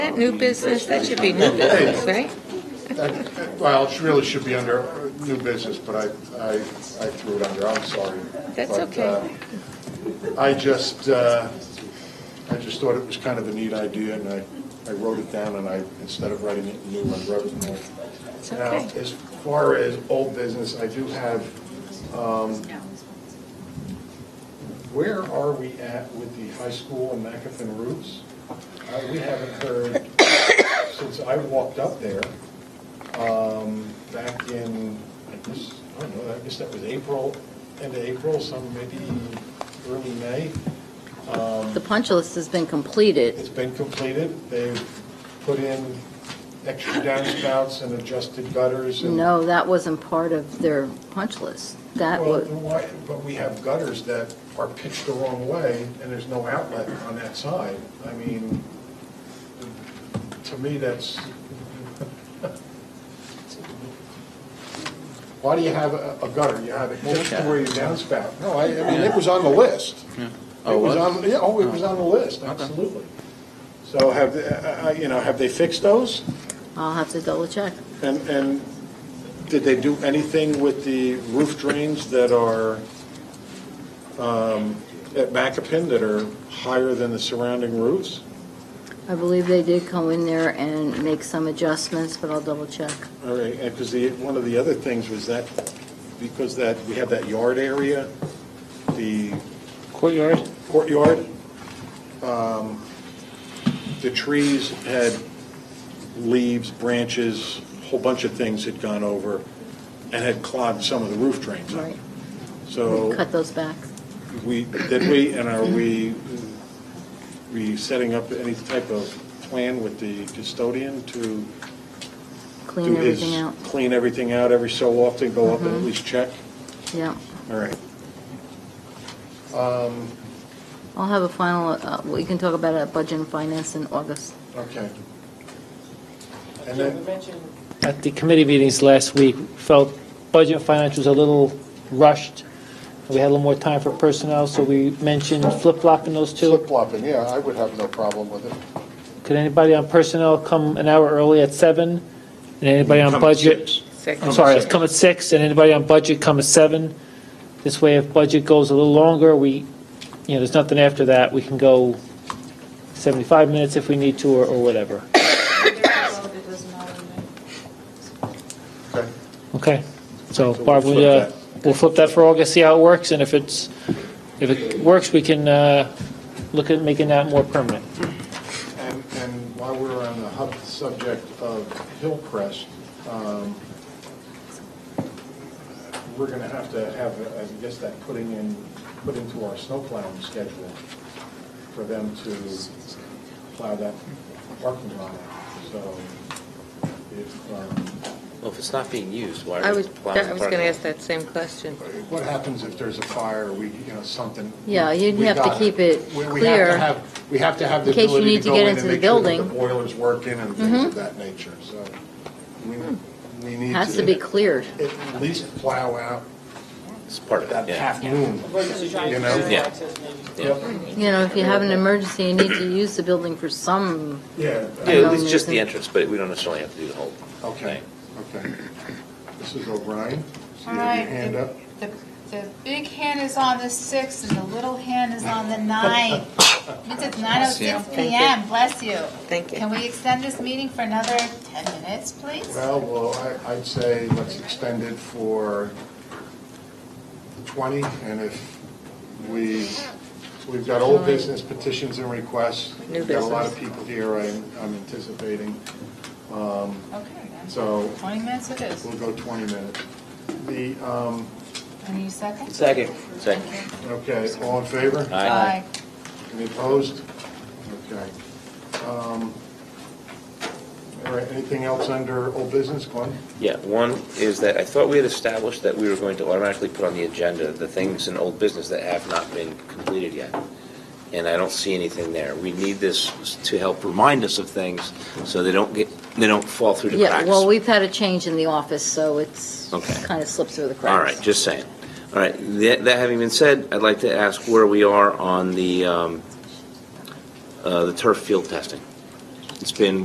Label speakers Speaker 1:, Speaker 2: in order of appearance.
Speaker 1: that new business? That should be new business, right?
Speaker 2: Well, it really should be under uh, new business, but I, I, I threw it under, I'm sorry.
Speaker 1: That's
Speaker 2: But,
Speaker 1: okay.
Speaker 2: uh, I just, uh, I just thought it was kind of a neat idea, and I, I wrote it down, and I, instead of writing it new, I wrote it new.
Speaker 1: It's
Speaker 2: Now,
Speaker 1: okay.
Speaker 2: as far as old business, I do have, um, where are we at with the high school and McAfee roofs? Uh, We haven't heard, since I walked up there, um, back in, I guess, I don't know, I guess that was April, end of April, some maybe early May.
Speaker 3: The punch list has been completed.
Speaker 2: It's been completed. They've put in extra downspouts and adjusted gutters and.
Speaker 3: No, that wasn't part of their punch list. That
Speaker 2: Well,
Speaker 3: was,
Speaker 2: then why- But we have gutters that are pitched the wrong way, and there's no outlet on that side. I mean, to me, that's, why do you have a a gutter? You have it just to where your downspout. No, I, I mean, it was on the list.
Speaker 4: Oh,
Speaker 2: It was
Speaker 4: it was?
Speaker 2: on, yeah, oh, it was on the list, absolutely. So have, they- I- I- you know, have they fixed those?
Speaker 3: I'll have to double check.
Speaker 2: And, and did they do anything with the roof drains that are um, at Macapin that are higher than the surrounding roofs?
Speaker 3: I believe they did come in there and make some adjustments, but I'll double check.
Speaker 2: All right, and because the, one of the other things was that, because that, we have that yard area, the
Speaker 4: Courtyard?
Speaker 2: courtyard, um, the trees had leaves, branches, a whole bunch of things had gone over and had clogged some of the roof drains up.
Speaker 3: Right.
Speaker 2: So
Speaker 3: Cut those back.
Speaker 2: We, did we, and are we, we setting up any type of plan with the custodian to?
Speaker 3: Clean
Speaker 2: do his-
Speaker 3: everything out. Mm-hmm.
Speaker 2: Clean everything out every so often, go up and at least check?
Speaker 3: Yeah.
Speaker 2: All right.
Speaker 3: I'll have a final, uh, we can talk about it at budget and finance in August.
Speaker 2: Okay. And
Speaker 5: Jim, you
Speaker 2: then,
Speaker 5: mentioned
Speaker 4: At the committee meetings last week, felt budget and finance was a little rushed. We had a little more time for personnel, so we mentioned flip-flopping those two.
Speaker 2: flip-flopping, yeah, I would have no problem with it.
Speaker 4: Could anybody on personnel come an hour early at seven? And anybody on
Speaker 2: Come at
Speaker 4: budget?
Speaker 2: six.
Speaker 4: I'm
Speaker 1: Second.
Speaker 4: sorry, it's come at six, and anybody on budget come at seven. This way, if budget goes a little longer, we, you know, there's nothing after that, we can go 75 minutes if we need to, or- or whatever.
Speaker 6: It doesn't matter to me.
Speaker 2: Okay.
Speaker 4: Okay, so
Speaker 2: So
Speaker 4: Barb,
Speaker 2: we'll
Speaker 4: we, uh,
Speaker 2: flip
Speaker 4: we'll flip that for August, see how it works, and if it's, if it works, we can uh, look at making that more permanent.
Speaker 2: And, and while we're on the hub subject of Hillcrest, um, we're gonna have to have, I guess, that putting in, put into our snow plowing schedule for them to plow that parking lot. So if, um,
Speaker 7: Well, if it's not being used, why
Speaker 1: I
Speaker 7: are we
Speaker 1: was,
Speaker 7: plowing the
Speaker 1: I was going to
Speaker 7: parking lot?
Speaker 1: ask that same question.
Speaker 2: what happens if there's a fire, we, you know, something?
Speaker 3: Yeah, you'd
Speaker 2: we
Speaker 3: have to
Speaker 2: gotta-
Speaker 3: keep it
Speaker 2: we- we have to
Speaker 3: clear.
Speaker 2: have- We have to have the
Speaker 3: In case you
Speaker 2: ability to
Speaker 3: need to
Speaker 2: go
Speaker 3: get
Speaker 2: in and
Speaker 3: into the
Speaker 2: make sure that the
Speaker 3: building. Mm-hmm.
Speaker 2: boiler's working and things of that nature, so we, we need to.
Speaker 3: Hmm. Has to be cleared.
Speaker 2: at least plow out
Speaker 7: It's part of
Speaker 2: that
Speaker 7: it, yeah.
Speaker 2: half moon,
Speaker 5: emergency
Speaker 2: you
Speaker 5: drive-through
Speaker 2: know?
Speaker 7: Yeah.
Speaker 5: access maybe.
Speaker 3: You know, if you have an emergency, you need to use the building for some,
Speaker 2: Yeah,
Speaker 7: Yeah,
Speaker 3: Um,
Speaker 7: at least just
Speaker 3: isn't-
Speaker 7: the entrance, but we don't necessarily have to do the whole
Speaker 2: okay,
Speaker 7: thing.
Speaker 2: okay. This is O'Brien. So
Speaker 6: All
Speaker 2: you have
Speaker 6: right.
Speaker 2: your hand up.
Speaker 6: The, the big hand is on the sixth and the little hand is on the ninth. It's nine oh six
Speaker 1: Thank you.
Speaker 6: PM, bless you.
Speaker 1: Thank you.
Speaker 6: Can we extend this meeting for another ten minutes, please?
Speaker 2: Well, well, I- I'd say let's extend it for 20, and if we, we've got old business petitions and requests.
Speaker 1: New
Speaker 2: We've got a lot of
Speaker 1: business.
Speaker 2: people here I'm I'm anticipating,
Speaker 6: Okay, then.
Speaker 2: so
Speaker 6: Twenty minutes it is.
Speaker 2: we'll go 20 minutes. The, um,
Speaker 6: I need a second?
Speaker 7: Second. Second.
Speaker 2: okay, all in favor?
Speaker 7: Aye.
Speaker 6: Aye.
Speaker 2: Any opposed? Okay. Um, All right, anything else under old business, Glenn?
Speaker 7: Yeah, one is that I thought we had established that we were going to automatically put on the agenda the things in old business that have not been completed yet. And I don't see anything there. We need this to help remind us of things so they don't get, they don't fall through the
Speaker 3: yeah,
Speaker 7: cracks.
Speaker 3: well, we've had a change in the office, so it's
Speaker 7: Okay.
Speaker 3: kind of slips through the cracks.
Speaker 7: All right, just saying. All right, that, that having been said, I'd like to ask where we are on the, um, uh, the turf field testing. It's been